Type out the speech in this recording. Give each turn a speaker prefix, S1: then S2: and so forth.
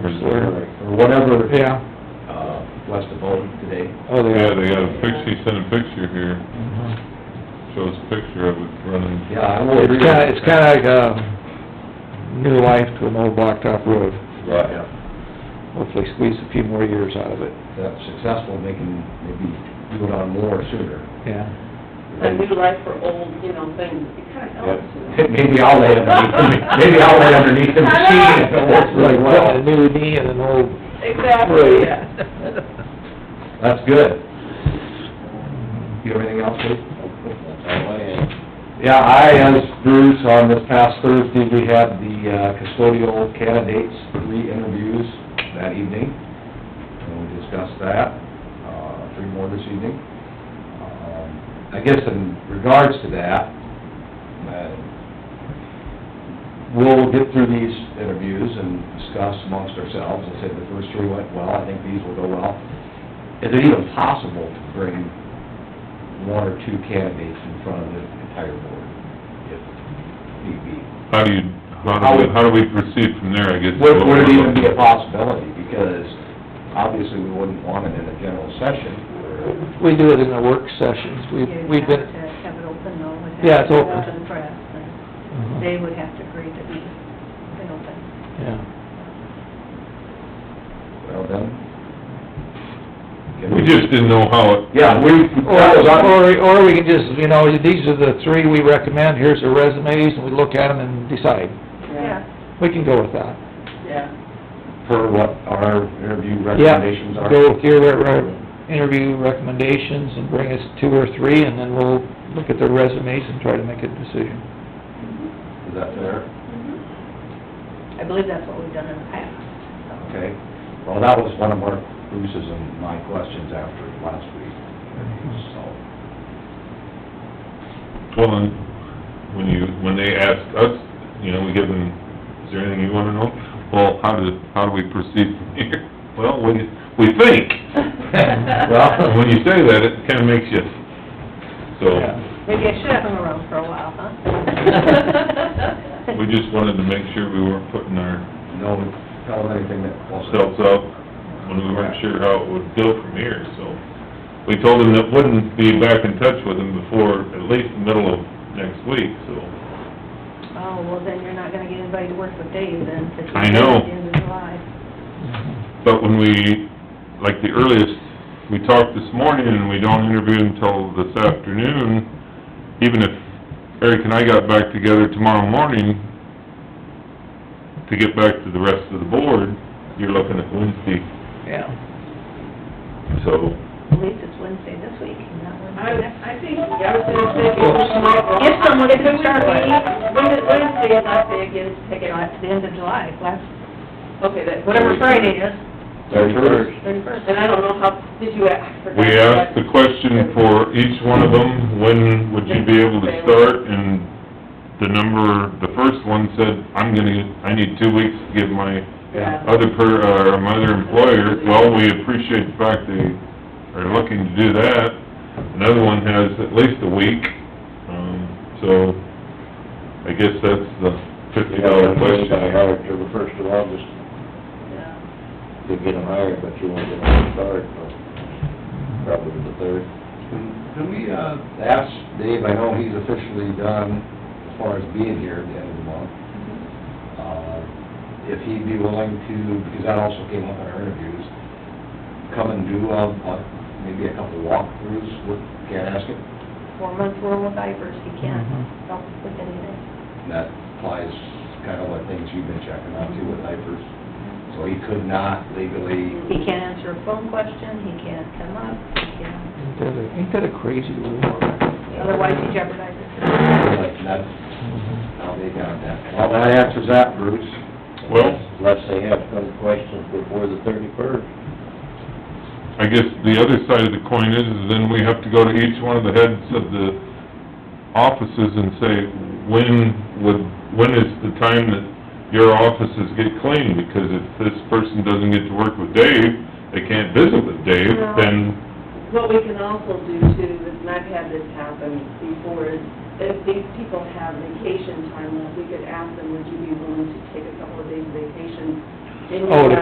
S1: conference or,
S2: or whatever,
S1: yeah,
S2: uh, west of Bowden today.
S1: oh, they
S3: Yeah,
S1: are.
S3: they got a picture, he sent a picture here,
S1: Mhm.
S3: shows a picture of it running.
S2: Yeah, I will agree.
S1: It's kinda, it's kinda like, um, new life to an old blacktop road,
S3: Right.
S2: Yeah,
S1: hopefully squeeze a few more years out of it,
S2: that's successful, they can maybe do it on more sooner.
S1: yeah.
S4: A new life for old, you know, things, it kinda helps, you know.
S2: Maybe I'll lay underneath, maybe I'll lay underneath the machine if it works really
S1: A
S2: well.
S1: new knee and an old,
S4: Exactly, yeah.
S2: That's good. You have anything else, Dave? Yeah, I, as Bruce, on this past Thursday, we had the uh, custodial candidates, three interviews that evening. And we discussed that, uh, three more this evening. Um, I guess in regards to that, uh, we'll get through these interviews and discuss amongst ourselves, I said the first three went well, I think these will go well. Is it even possible to bring one or two candidates in front of the entire board, if need be?
S3: How do you, how do we, how do we proceed from there, I guess? is
S2: Would,
S3: what
S2: would it
S3: we're
S2: even be a
S3: looking-
S2: possibility, because obviously we wouldn't want it in a general session, or,
S1: we do it in the work sessions, we, we've
S5: You'd
S1: been,
S5: have to have it open though, would have
S1: Yeah, it's
S5: to go
S1: open.
S5: out to the press, and
S1: Mm-hmm.
S5: they would have to agree to be, been open.
S1: yeah.
S2: well, then.
S3: We just didn't know how it,
S2: Yeah, we, that was
S1: Or,
S2: on,
S1: or, or we can just, you know, these are the three we recommend, here's the resumes, and we look at them and decide.
S4: Yeah,
S1: We can go with that.
S4: yeah.
S2: for what our interview
S1: Yeah,
S2: recommendations are.
S1: Go with your, re- re- interview recommendations and bring us two or three, and then we'll look at their resumes and try to make a decision.
S2: Is that fair?
S5: I believe that's what we've done in the past,
S2: Okay. Well, that was one of Mark Bruce's and my questions after last week, so.
S3: well, and when you, when they ask us, you know, we give them, is there anything you wanna know? Well, how do, how do we proceed from here? Well, we, we think.
S2: Well-
S3: And when you say that, it kinda makes you, so.
S1: Yeah.
S5: so. Maybe I should have hung around for a while, huh?
S3: We just wanted to make sure we weren't putting our
S2: No, tell them anything that also.
S3: selves up when we weren't sure how it would go from here, so. We told them that wouldn't be back in touch with them before at least the middle of next week, so.
S5: Oh, well, then you're not gonna get anybody to work with Dave then, because
S3: I
S5: he's
S3: know.
S5: at the end of July.
S3: But when we, like the earliest, we talked this morning and we don't interview until this afternoon, even if Eric and I got back together tomorrow morning to get back to the rest of the board, you're looking at Wednesday,
S1: Yeah.
S3: so.
S5: At least it's Wednesday this week, not
S4: I,
S5: Wednesday next.
S4: I think, yeah, I was gonna say, if it's tomorrow-
S5: If someone
S4: If it
S5: can
S4: would
S5: start
S4: be-
S5: by-
S4: When is, when is the last day again, to take it
S5: You know,
S4: on?
S5: it's the end of July, last,
S4: Okay, that,
S5: whatever
S4: whatever.
S5: Friday is,
S2: Thirty-first.
S5: thirty-first.
S4: And I don't know how, did you ask for that?
S3: We asked the question for each one of them, when would you be able to start? And the number, the first one said, I'm gonna, I need two weeks to give my
S4: Yeah.
S3: other per, uh, my other employer. Well, we appreciate the fact they are looking to do that. Another one has at least a week, um, so I guess that's the fifty dollar question.
S6: I hired till the first of August
S4: Yeah.
S6: to get them hired, but you won't get them started till probably the third.
S2: Can we, uh, ask Dave, I know he's officially done as far as being here at the end of the month, uh, if he'd be willing to, because that also came up in our interviews, come and do, uh, uh, maybe a couple walkthroughs with Kanasket?
S5: four months worth of diapers, he can't
S1: Mhm.
S5: help with anything.
S2: And that applies kind of what things you've been checking on too with diapers. So he could not legally,
S5: He can't answer a phone question, he can't come up, he can't,
S1: Ain't that a- ain't that a crazy rule?
S5: otherwise he jeopardizes.
S2: like, that's
S1: Mm-hmm.
S2: how they got that. Well, that answers that, Bruce.
S3: Well-
S6: Unless they have some questions before the thirty-first.
S3: I guess the other side of the coin is, is then we have to go to each one of the heads of the offices and say, when would, when is the time that your offices get cleaned? Because if this person doesn't get to work with Dave, they can't visit with Dave,
S4: No.
S3: then,
S4: What we can also do too, and I've had this happen before, is if these people have vacation time, we could ask them, would you be willing to take a couple of days vacation? in your
S1: Oh, to